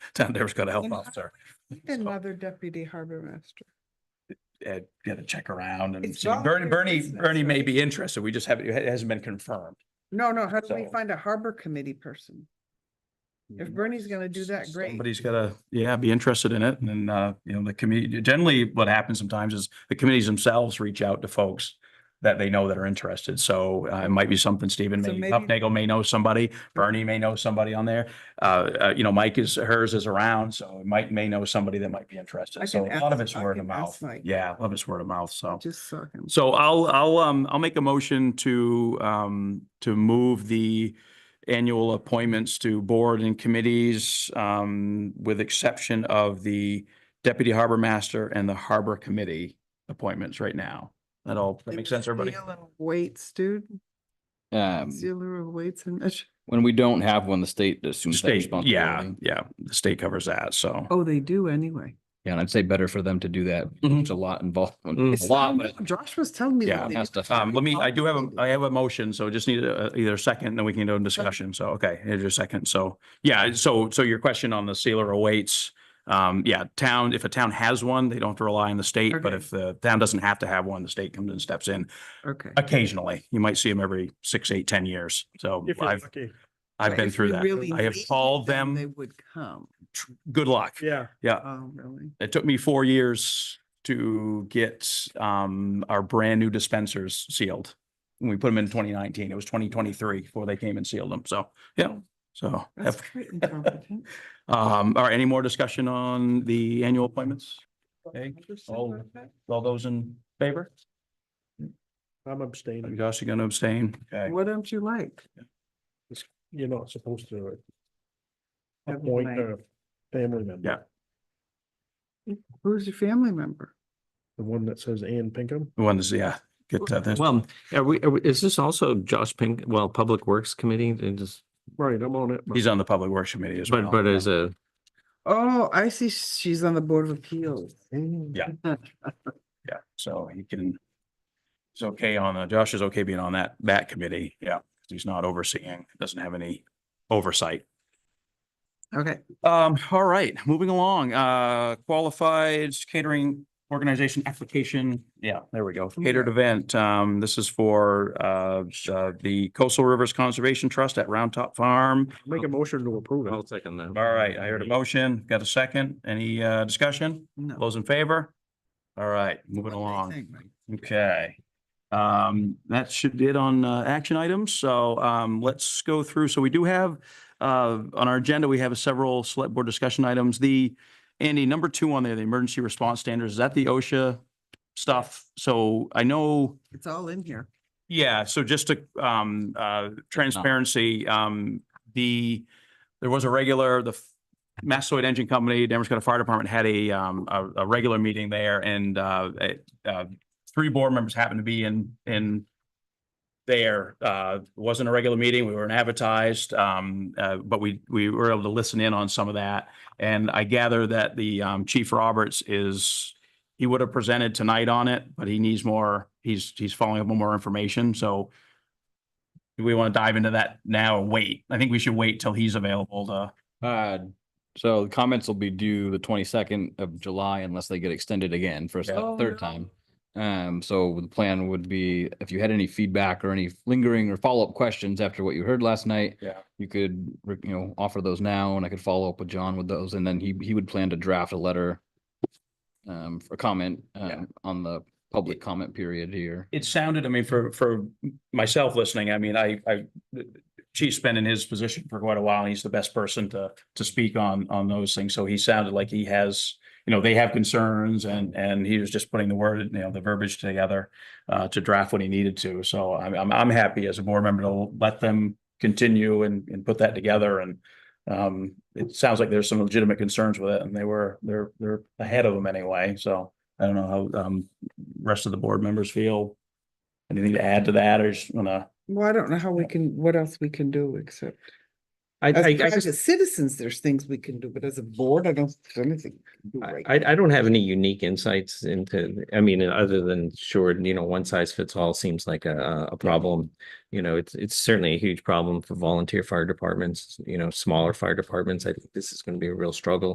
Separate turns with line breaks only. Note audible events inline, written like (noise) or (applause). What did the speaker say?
(laughs) Town Devil's got a health
And-
officer.
Another deputy harbor master.
Ed, got to check around and
It's
see. Bernie,
volunteer
Bernie,
business,
Bernie may
right?
be interested. We just haven't, it hasn't been confirmed.
No, no, how do we
So-
find a harbor committee person? If Bernie's gonna do that, great.
Somebody's gotta, yeah, be interested in it. And then, uh, you know, the committee, generally what happens sometimes is the committees themselves reach out to folks that they know that are interested. So uh, it might be something Stephen
So
may,
maybe-
Upnagle may know somebody, Bernie may know somebody on there. Uh, uh, you know, Mike is, hers is around, so it might, may know somebody that might be
I
interested. So
can
a lot of
ask-
it's
I
word
can
of mouth.
ask Mike.
Yeah, a lot of it's word of mouth, so.
Just saw him.
So I'll, I'll, um, I'll make a motion to, um, to move the annual appointments to board and committees, um, with exception of the deputy harbor master and the harbor committee appointments right now. That all, that
Maybe
makes sense, everybody?
Seal and Weights, dude.
Um,
Sealer of weights and measure.
when we don't have one, the state assumes that
State, yeah,
responsibility.
yeah, the state covers that, so.
Oh, they do anyway.
Yeah, and I'd say better for them to do that.
Mhm.
It's a lot involved,
Mhm.
a
It's-
lot,
I
but.
know, Josh was telling me.
Yeah,
that they
has
do.
to-
Um, let me, I do have, a I have a motion, so just need a- either a second, then we can go into discussion. So, okay, here's your second. So, yeah, so, so your question on the sealer awaits. Um, yeah, town, if a town has one, they don't have to rely on the state, but
Okay.
if the town doesn't have to have one, the state comes and steps in
Okay.
occasionally. You might see them every six, eight, ten years. So
If you're
I've,
lucky,
I've
But
been
if
through
we
that.
really
I have
needed
called
They
them,
would come.
tr- good luck.
yeah.
Yeah,
Oh, really?
it took me four years to get um our brand new dispensers sealed. When we put them in twenty nineteen, it was twenty twenty-three before they came and sealed them. So, yeah, so.
That's quite
(laughs)
incompetent.
Um, all right, any more discussion on the annual appointments? Okay, all- All those in favor?
I'm abstaining.
Josh, you gonna abstain? Okay.
What don't you like?
You're not supposed to
Never
appoint
mind.
a uh, family member.
Yeah.
Who's your family member?
The one that says Ann Pinkham.
One is, yeah, get that. that's-
Well, are we, are we- is this also Josh Pink, well, Public Works Committee, they just,
Right, I'm on it. but
He's on the Public Works Committee as well.
but, but as a,
Oh, I see. She's on the Board of Appeals.
Yeah. Yeah, so he can. He's okay on, uh, Josh is okay being on that, that committee. Yeah, he's not overseeing, doesn't have any oversight.
Okay.
Um, all right, moving along, uh, qualified catering organization application. Yeah, there we go. Catered event. Um, this is for, uh, uh, the Coastal Rivers Conservation Trust at Round Top Farm.
Make a motion to approve
I'll
it.
second that.
All right, I heard a motion. Got a second? Any, uh, discussion?
No.
Those in favor? All right, moving
What they
along.
think, Mike.
Okay. Um, that should be it on, uh, action items. So, um, let's go through. So we do have, uh, on our agenda, we have several select board discussion items. The, Andy, number two on there, the emergency response standards, is that the OSHA stuff? So I know.
It's all in here.
Yeah, so just to, um, uh, transparency, um, the, there was a regular, the F- Massasoit Engine Company, Denver's got a fire department had a, um, a, a regular meeting there and, uh, it, uh, three board members happened to be in, in there, uh, it wasn't a regular meeting, we weren't advertised, um, uh, but we, we were able to listen in on some of that. And I gather that the, um, Chief Roberts is, he would have presented tonight on it, but he needs more, he's, he's following up on more information, so do we want to dive into that now or wait? I think we should wait till he's available to,
Uh, so the comments will be due the twenty-second of July unless they get extended again for a
Yeah.
se- third time. Um, so the plan would be if you had any feedback or any lingering or follow-up questions after what you heard last night.
Yeah.
You could, re- you know, offer those now and I could follow up with John with those and then he, he would plan to draft a letter. Um, for comment, um, on the public comment period here.
it sounded, I mean, for, for myself listening, I mean, I, I, Chief's been in his position for quite a while, and he's the best person to, to speak on, on those things, so he sounded like he has, you know, they have concerns and, and he was just putting the word, you know, the verbiage together uh, to draft what he needed to, so I'm, I'm, I'm happy as a board member to let them continue and, and put that together and um, it sounds like there's some legitimate concerns with it and they were, they're, they're ahead of them anyway, so I don't know how, um, rest of the board members feel. Anything to add to that or just wanna?
Well, I don't know how we can, what else we can do except
I, I, I
As
just-
private citizens, there's things we can do, but as a board, I don't think anything. we can do
I,
right
I I don't have any unique insights into, I mean, other than sure, you know, one size fits all seems like a- a, a problem. You know, it's, it's certainly a huge problem for volunteer fire departments, you know, smaller fire departments. I think this is going to be a real struggle.